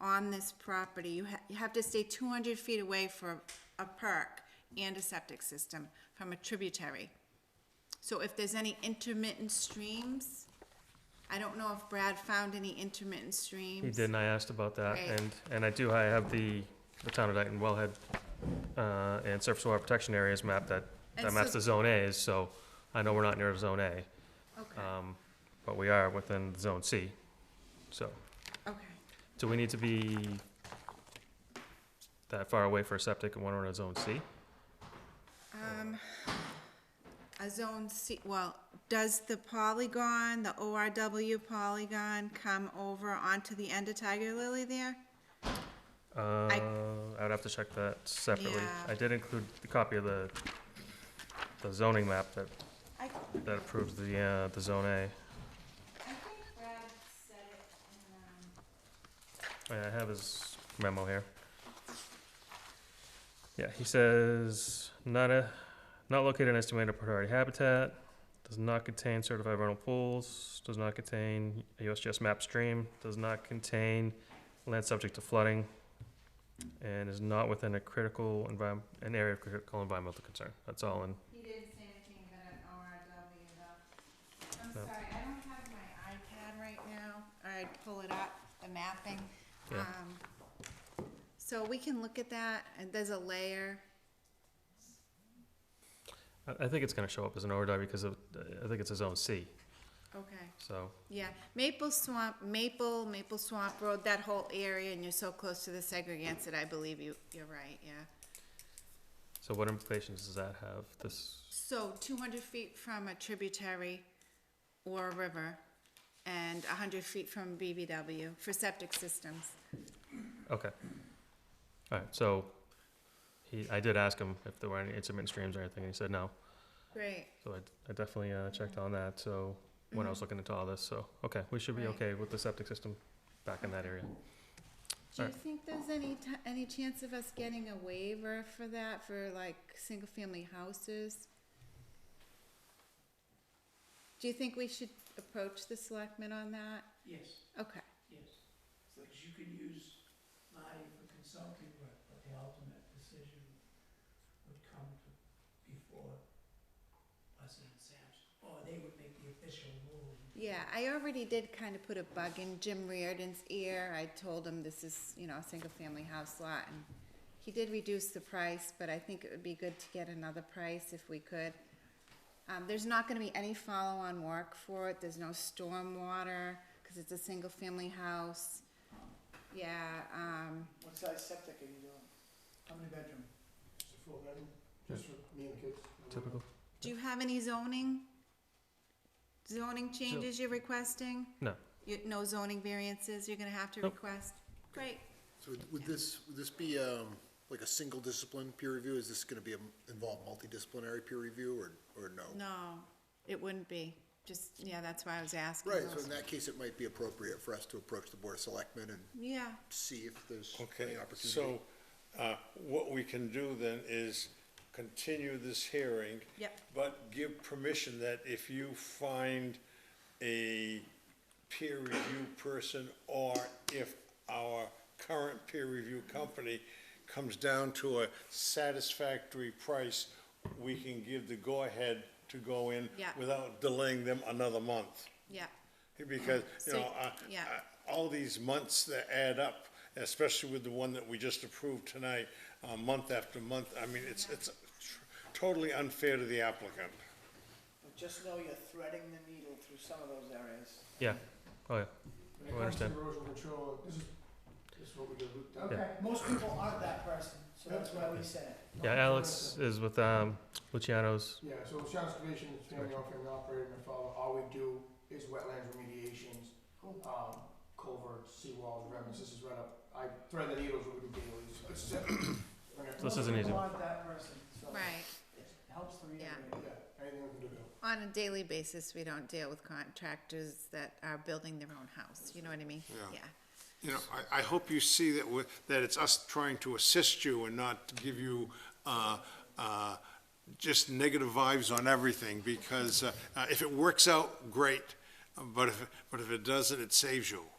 on this property, you ha- you have to stay two hundred feet away from a park and a septic system from a tributary. So if there's any intermittent streams, I don't know if Brad found any intermittent streams. He did, and I asked about that, Right. and, and I do, I have the, the town of Dayton wellhead, uh, and surface water protection areas map that, that And maps so- the zone A's, so I know we're not near zone A, Okay, um, but we are within zone C, so, okay. do we need to be that far away for a septic and when we're in a zone C? Um, a zone C, well, does the polygon, the ORW polygon come over onto the end of Tiger Lily there? Uh, I would have to check that separately. Yeah. I did include the copy of the, the zoning map that, I, I that approves the, uh, the zone A. think Brad said um, it Yeah, I have his memo here. Yeah, he says, not a, not located in estimated priority habitat, does not contain certified vernal pools, does not contain a USGS map stream, does not contain land subject to flooding, and is not within a critical environment, an area of critical environmental concern. That's all in, in um, he didn't say anything about an ORW though. I'm No. sorry, I don't have my iPad right now, or I'd pull it up, the mapping. Yeah. Um, So we can look at that, and there's a layer. I, I think it's gonna show up as an ORW because of, I think it's a zone C, Okay. so, Yeah, Maple Swamp, Maple, Maple Swamp Road, that whole area, and you're so close to the segregants that I believe you, you're right, yeah. so what implications does that have, this? So two hundred feet from a tributary or a river, and hundred feet from BBW for septic systems. Okay. All right, so he, I did ask him if there were any intermittent streams or anything, and he said no. Great, So I, I definitely uh, checked on that, so, when I was looking into all this, so, okay, we should be Right. okay with the septic system back in that area. do you Alright. think there's any ti- any chance of us getting a waiver for that, for like, single-family houses? Do you think we should approach the selectmen on that? Yes, Okay. yes. Because you can use Marty for consulting work, but the ultimate decision would come to, before us and Sampson. Or they would make the official ruling. Yeah, I already did kind of put a bug in Jim Reardon's ear. I told him this is, you know, a single-family house lot, and he did reduce the price, but I think it would be good to get another price if we could. Um, there's not gonna be any follow-on work for it. There's no stormwater, cause it's a single-family house. Yeah, um, What size septic are you doing? How many bedroom? Four bedroom, Just for me and the kids. Typical. do you have any zoning? Zoning changes you're requesting? No. You, no zoning variances you're gonna have to Nope. request? Great. So would- would this, would this be um, like a single discipline peer review? Is this gonna be, a- involve multidisciplinary peer review or, or no? No, it wouldn't be. Just, yeah, that's why I was asking. Right, so those- in that case, it might be appropriate for us to approach the Board of Selectmen and Yeah, see if there's Okay, any opportunity. so, uh, what we can do then is continue this hearing. Yep. But give permission that if you find a peer review person, or if our current peer review company comes down to a satisfactory price, we can give the go-ahead to go in Yeah. without delaying them another month. yeah, Because, you So, know, uh, yeah. uh, all these months that add up, especially with the one that we just approved tonight, uh, month after month, I mean, it's, it's totally unfair to the applicant. But Just know you're threading the needle through some of those areas. Yeah, oh, yeah, When it I comes to understand. erosion control, this is, this is what we do. Okay, most people aren't that person, so that's why we said it. yeah, Alex is with, um, Luciano's, Yeah, so Sean's Conservation, is family owned, family operated, my father, all we do is wetlands remediations, um, culverts, seawalls, remnants, this is right up, I thread the needles with the daily, so this is it. Okay, So this isn't easy. Most people aren't that person, so right. it helps to reiterate. Yeah, anything we can do to help. On a daily basis, we don't deal with contractors that are building their own house, you know what I mean? Yeah. You know, I, I hope you see that we that it's us trying to assist you and not to give you, uh, uh, just negative vibes on everything, because, uh, uh, if it works out, great, but if, but if it doesn't, it saves you.